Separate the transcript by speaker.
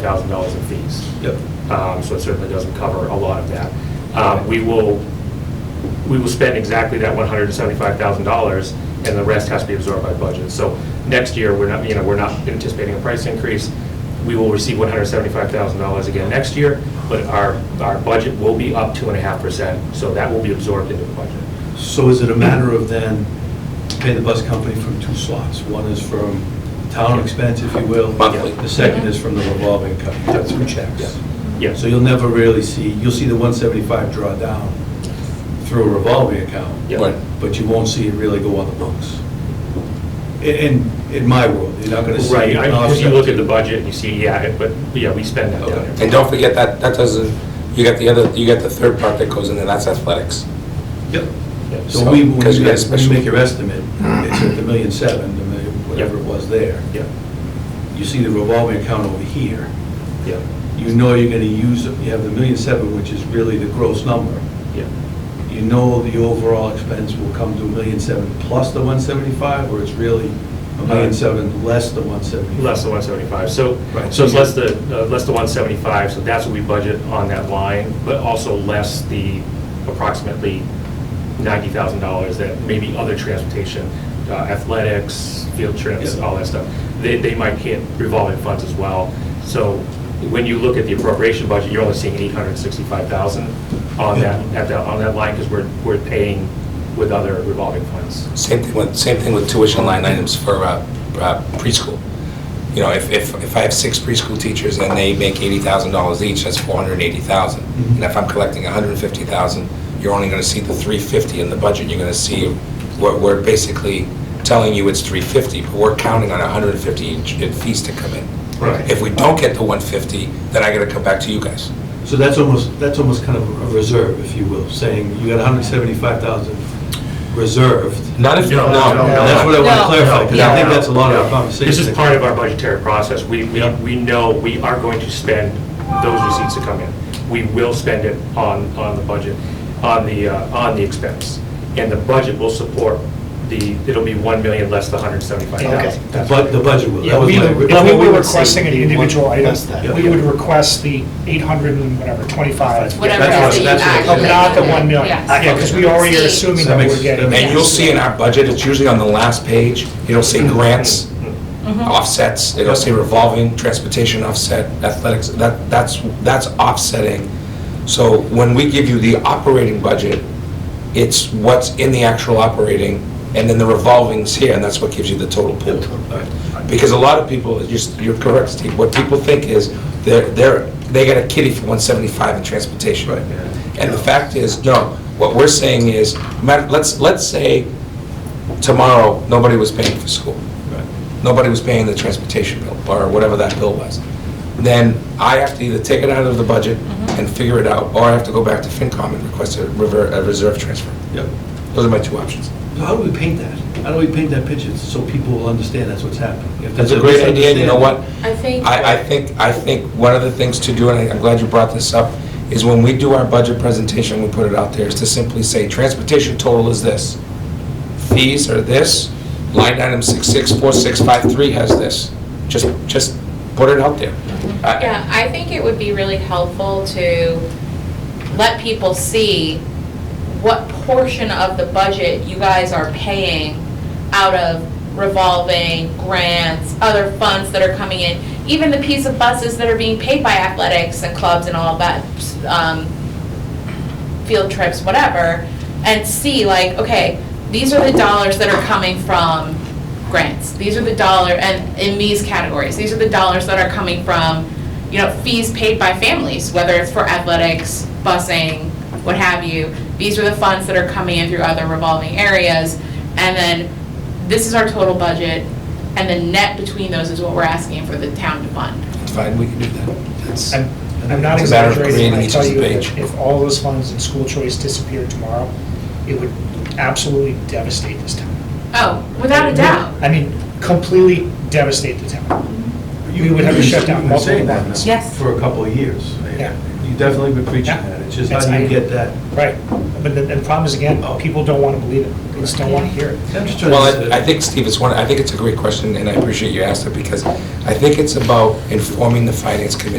Speaker 1: thousand dollars in fees.
Speaker 2: Yep.
Speaker 1: Um, So it certainly doesn't cover a lot of that. Um, We will, we will spend exactly that one hundred and seventy-five thousand dollars, and the rest has to be absorbed by budget. So next year, we're not, you know, we're not anticipating a price increase. We will receive one hundred and seventy-five thousand dollars again next year, but our, our budget will be up two and a half percent, so that will be absorbed into the budget.
Speaker 2: So is it a matter of then paying the bus company from two slots? One is from town expense, if you will.
Speaker 3: Monthly.
Speaker 2: The second is from the revolving account, two checks.
Speaker 1: Yeah.
Speaker 2: So you'll never really see, you'll see the 175 draw down through a revolving account.
Speaker 1: Yeah.
Speaker 3: Right.
Speaker 2: But you won't see it really go on the books. In, in- in my world, you're not gonna see.
Speaker 1: Right,
Speaker 2: an
Speaker 1: I- if you
Speaker 2: offset.
Speaker 1: look at the budget, and you see, yeah, it- but, yeah, we spend that down.
Speaker 2: Okay.
Speaker 1: every
Speaker 3: And don't forget that, that doesn't, you got the other, you got the third part that goes in there, that's athletics.
Speaker 2: Yep.
Speaker 1: year.
Speaker 2: So we, when
Speaker 3: Because
Speaker 2: you
Speaker 3: you got a
Speaker 2: guys- when you
Speaker 3: special-
Speaker 2: make your estimate, it's at the million seven, the million, whatever it was there.
Speaker 1: Yeah,
Speaker 2: You see the revolving account over here.
Speaker 1: yeah,
Speaker 2: you know you're gonna use, you have the million seven, which is really the gross number.
Speaker 1: yeah.
Speaker 2: You know the overall expense will come to a million seven plus the one seventy-five, or it's really a million seven less the one seventy-five?
Speaker 1: Less than 175, so,
Speaker 2: Right.
Speaker 1: so it's less the, uh, less the 175, so that's what we budget on that line, but also less the approximately $90,000 that maybe other transportation, uh, athletics, field trips,
Speaker 2: Yeah.
Speaker 1: all that stuff, they, they might hit revolving funds as well. So when you look at the appropriation budget, you're only seeing 865,000 on that, at that, on that line, because we're, we're paying with other revolving funds.
Speaker 3: Same thing with, same thing with tuition line items for uh, uh, preschool. You know, if, if, if I have six preschool teachers and they make eighty thousand dollars each, that's four hundred and eighty thousand.
Speaker 1: Mm-hmm.
Speaker 2: Mhm.
Speaker 3: And if I'm collecting a hundred and fifty thousand, you're only gonna see the three fifty in the budget, you're gonna see, we're, we're basically telling you it's three fifty, but we're counting on a hundred and fifty in in fees to come in.
Speaker 1: Right.
Speaker 3: If we don't get the one fifty, then I gotta come back to you guys.
Speaker 2: So that's almost, that's almost kind of a reserve, if you will, saying you got a hundred seventy-five thousand reserved.
Speaker 3: Not if,
Speaker 1: No, no, no.
Speaker 2: That's what I wanna
Speaker 4: No.
Speaker 2: clarify, because I think
Speaker 1: No.
Speaker 2: that's a lot of our
Speaker 1: No.
Speaker 2: conversation.
Speaker 1: This is part of our budgetary process. We, we, we know we are going to spend those receipts that come in. We will spend it on, on the budget, on the, uh, on the expense. And the budget will support the, it'll be 1 million less the 175,000.
Speaker 5: Okay.
Speaker 2: The bud- the budget will. That
Speaker 5: Yeah,
Speaker 2: was
Speaker 5: we
Speaker 2: my-
Speaker 5: would-
Speaker 2: that's
Speaker 5: if we
Speaker 2: what
Speaker 5: were
Speaker 2: would see.
Speaker 5: requesting an individual item,
Speaker 6: does that?
Speaker 5: we would request the 800 and whatever, 25.
Speaker 4: Whatever
Speaker 2: That's what-
Speaker 4: is the
Speaker 2: that's what-
Speaker 4: actual-
Speaker 5: Not the 1 million.
Speaker 4: Yes.
Speaker 5: Yeah, because we already are assuming
Speaker 2: That
Speaker 5: that
Speaker 2: makes-
Speaker 5: we're getting.
Speaker 2: that
Speaker 3: And you'll see in our budget, it's usually on the last page, it'll say grants, offsets, it'll say revolving, transportation offset, athletics, that, that's, that's offsetting. So when we give you the operating budget, it's what's in the actual operating, and then the revolving's here, and that's what gives you the total pool.
Speaker 2: All right.
Speaker 3: Because a lot of people, you're you're correct, Steve, what people think is, they're, they're, they got a kitty for 175 in transportation.
Speaker 2: Right.
Speaker 3: And the fact is, no, what we're saying is, ma- let's, let's say tomorrow, nobody was paying for school.
Speaker 2: Right.
Speaker 3: Nobody was paying the transportation bill, or whatever that bill was. Then I have to either take it out of the budget and figure it out, or I have to go back to FinCom and request a rever- a reserve transfer.
Speaker 2: Yep.
Speaker 3: Those are my two options.
Speaker 2: So how do we paint that? How do we paint that picture so people will understand that's what's happening? If
Speaker 3: That's
Speaker 2: there's
Speaker 3: a great idea, and you know what?
Speaker 4: I think.
Speaker 3: I, I think, I think one of the things to do, and I'm glad you brought this up, is when we do our budget presentation, we put it out there, is to simply say, transportation total is this. Fees are this, line item 664653 has this. Just, just put it out there. I-
Speaker 4: Yeah, I think it would be really helpful to let people see what portion of the budget you guys are paying out of revolving, grants, other funds that are coming in, even the piece of buses that are being paid by athletics and clubs and all that, um, field trips, whatever, and see like, okay, these are the dollars that are coming from grants. These are the dollar, and in these categories, these are the dollars that are coming from, you know, fees paid by families, whether it's for athletics, busing, what have you. These are the funds that are coming in through other revolving areas. And then this is our total budget, and the net between those is what we're asking for the town to fund.
Speaker 3: It's fine, we can do that. That's-
Speaker 5: I'm I'm not
Speaker 3: It's a matter of
Speaker 5: exaggerating when I
Speaker 3: creating
Speaker 5: tell
Speaker 3: each
Speaker 5: you
Speaker 3: page.
Speaker 5: that if all those funds in school choice disappeared tomorrow, it would absolutely devastate this town.
Speaker 4: Oh, without a doubt.
Speaker 5: I mean, completely devastate the town.
Speaker 2: You
Speaker 5: We would have to shut down
Speaker 2: You've been saying
Speaker 5: multiple
Speaker 2: that
Speaker 5: lines.
Speaker 2: now
Speaker 4: Yes.
Speaker 2: For a couple of years.
Speaker 5: Yeah.
Speaker 2: You you've definitely been preaching
Speaker 5: Yeah.
Speaker 2: that, it's just how do
Speaker 5: That's-
Speaker 2: you get that?
Speaker 5: Right, but the, the problem is, again,
Speaker 3: Oh.
Speaker 5: people don't want to believe it, they just don't want to hear it.
Speaker 2: I'm just trying to
Speaker 3: Well,
Speaker 2: understand.
Speaker 3: I I think, Steve, it's one, I think it's a great question, and I appreciate you asked it, because I think it's about informing the finance committee